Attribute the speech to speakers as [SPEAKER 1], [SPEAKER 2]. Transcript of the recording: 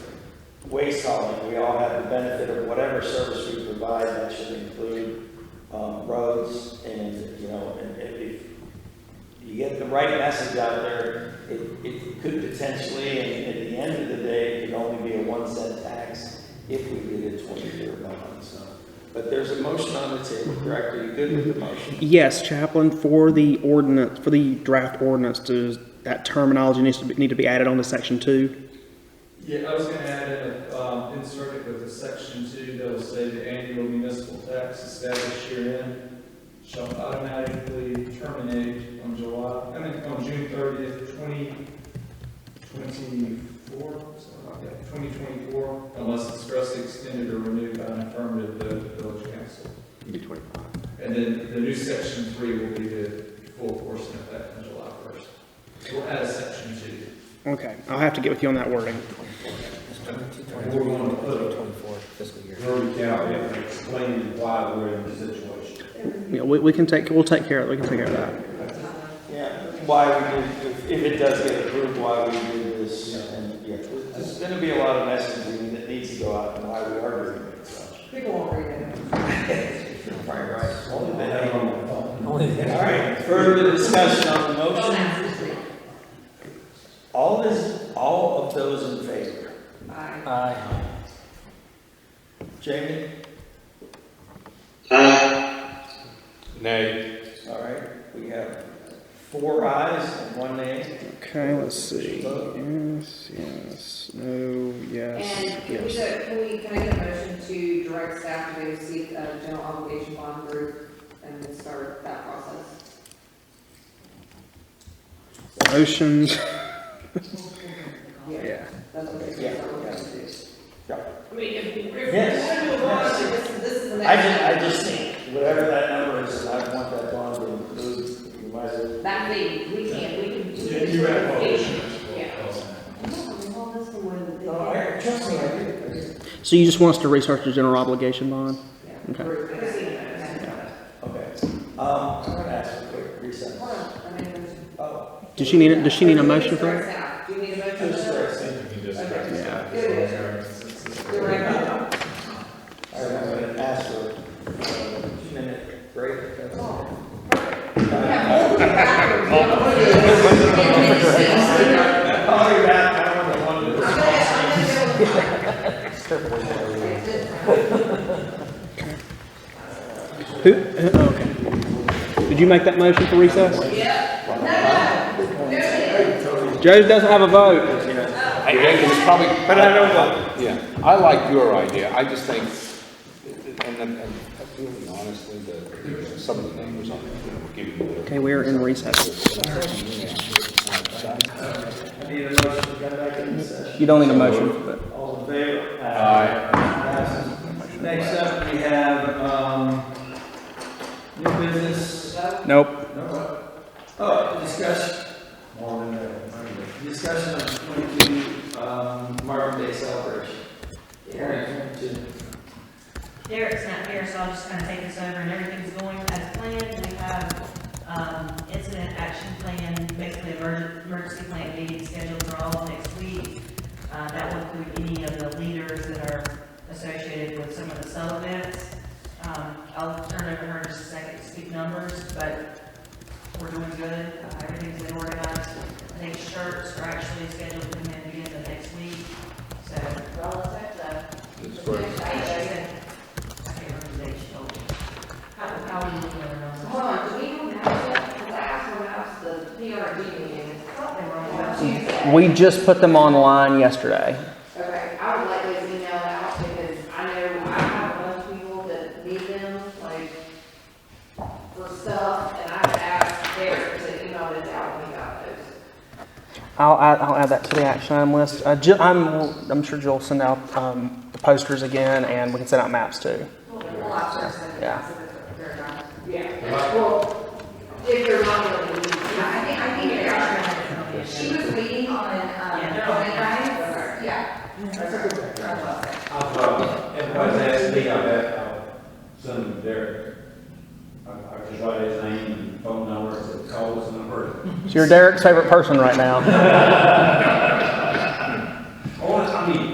[SPEAKER 1] waste hauling, we all have the benefit of whatever service we provide, that should include, um, roads and, you know, and if- if you get the right message out there, it, it could potentially, and at the end of the day, it could only be a one cent tax if we did a twenty-year bond, so. But there's a motion on the table, correct? Are you good with the motion?
[SPEAKER 2] Yes, Chaplain, for the ordinance, for the draft ordinance, does that terminology needs to be, need to be added on to section two?
[SPEAKER 3] Yeah, I was gonna add in, a, um, insert it with a section two that will say the annual municipal tax established herein shall automatically terminate on July, I mean, on June thirtieth, twenty twenty-four, something like that, twenty twenty-four, unless expressly extended or renewed by an affirmative vote of the village council. And then the new section three will be the full portion of that on July first. We'll add a section two.
[SPEAKER 2] Okay, I'll have to get with you on that wording.
[SPEAKER 3] We're going to put it
[SPEAKER 4] fiscal year.
[SPEAKER 5] Rory County, and explain why we're in this situation.
[SPEAKER 2] Yeah, we, we can take, we'll take care of, we can take care of that.
[SPEAKER 1] Yeah, why we did, if- if it does get approved, why we do this, and, yeah, there's gonna be a lot of messaging that needs to go out, and why we are doing it, so.
[SPEAKER 6] People won't read it.
[SPEAKER 1] Right, right. Only the head on the phone.
[SPEAKER 4] Only
[SPEAKER 1] All right, further discussion on the
[SPEAKER 6] Don't
[SPEAKER 1] motion?
[SPEAKER 6] ask to read.
[SPEAKER 1] All is, all of those in favor?
[SPEAKER 6] Aye.
[SPEAKER 4] Aye.
[SPEAKER 1] Jamie?
[SPEAKER 7] Nay.
[SPEAKER 1] All right, we have four ayes and one nay.
[SPEAKER 2] Okay, let's see. Yes, yes, no, yes,
[SPEAKER 6] And can we,
[SPEAKER 2] yes.
[SPEAKER 6] get- can we, can I get a motion to direct staff to go seek a general obligation bond group and then start that process?
[SPEAKER 2] Motions,
[SPEAKER 6] Yeah,
[SPEAKER 2] yeah.
[SPEAKER 6] that's what
[SPEAKER 1] Yeah,
[SPEAKER 6] it's.
[SPEAKER 1] yeah, it is.
[SPEAKER 6] I mean, if, if we're
[SPEAKER 1] Yes,
[SPEAKER 6] gonna move on,
[SPEAKER 1] yes.
[SPEAKER 6] this is, this is the
[SPEAKER 1] I
[SPEAKER 6] next.
[SPEAKER 1] just, I just think, whatever that number is, I want that bond to include, you might as well.
[SPEAKER 6] That thing, we can, we can do.
[SPEAKER 3] Yeah, you have all
[SPEAKER 6] this. Yeah.
[SPEAKER 3] the.
[SPEAKER 6] I know, we hold this one more than-
[SPEAKER 1] trust me, I did.
[SPEAKER 2] So you just want us to research the general obligation bond?
[SPEAKER 6] Yeah.
[SPEAKER 2] Okay.
[SPEAKER 6] Group, I see that, yeah.
[SPEAKER 1] Okay, um, I'm gonna ask a quick recess.
[SPEAKER 6] Hold on, I made a motion.
[SPEAKER 1] Oh,
[SPEAKER 2] Does she need, a- does she need a motion for that?
[SPEAKER 6] Direct staff. Do you need a motion? for
[SPEAKER 1] just
[SPEAKER 6] that?
[SPEAKER 1] for a second.
[SPEAKER 6] Okay.
[SPEAKER 2] Yeah.
[SPEAKER 6] Good. You're right.
[SPEAKER 1] All right, I'm gonna ask for a minute break. That's all.
[SPEAKER 6] Yeah.
[SPEAKER 1] I'll be back, I don't want to.
[SPEAKER 2] Who, who- oh, okay. Did you make that motion for recess?
[SPEAKER 6] No, no, no.
[SPEAKER 2] Joe doesn't have a vote.
[SPEAKER 7] It's probably,
[SPEAKER 1] But I don't know.
[SPEAKER 7] yeah, I like your idea, I just think, and, and, and really honestly, the, some of the numbers on it, we're giving you
[SPEAKER 2] Okay, we're in recess.
[SPEAKER 1] I need a motion to come back in session.
[SPEAKER 2] You don't need a motion, but.
[SPEAKER 1] All in favor?
[SPEAKER 7] Aye.
[SPEAKER 1] Passes. Next up, we have, um, new business.
[SPEAKER 2] Nope.
[SPEAKER 1] No. Oh, discussion. Discussion on twenty-two, um, Marvin Day celebration. Karen, you-
[SPEAKER 8] Derek's not here, so I'll just kind of take this over, and everything's going as planned. We have, um, incident action plan, basically emerg- emergency plan meeting scheduled for all of next week. Uh, that will include any of the leaders that are associated with some of the cell events. Um, I'll turn it over to her in just a second to speak numbers, but we're doing good, Uh, everything's been organized. I think shirts are actually scheduled to come in again the next week, so we're all set up.
[SPEAKER 7] It's great.
[SPEAKER 8] How, how are you doing
[SPEAKER 6] Hold on, do we have that? Because I asked them about the PRG meeting. On Tuesday.
[SPEAKER 2] We just put them online yesterday.
[SPEAKER 6] Okay, I would like to email out because I know I have a bunch of people that need them, like, for stuff, and I asked Derek to email this out when we got those.
[SPEAKER 2] I'll, add- I'll add that to the action item list. Uh, Jill, I'm, I'm sure Jill will send out, um, the posters again and we can send out maps too.
[SPEAKER 6] Well, I'll share some.
[SPEAKER 2] Yeah.
[SPEAKER 6] Yeah, well, if they're not really needed.
[SPEAKER 9] I think, I think they're on. She was waiting on, um,
[SPEAKER 8] Yeah, they're on.
[SPEAKER 9] on it, right? Yeah.
[SPEAKER 5] I'll probably, if I was asked me, I bet I'll send them there. I, I just write his name and phone number, it's a call, it's number.
[SPEAKER 2] So you're Derek's favorite person right now.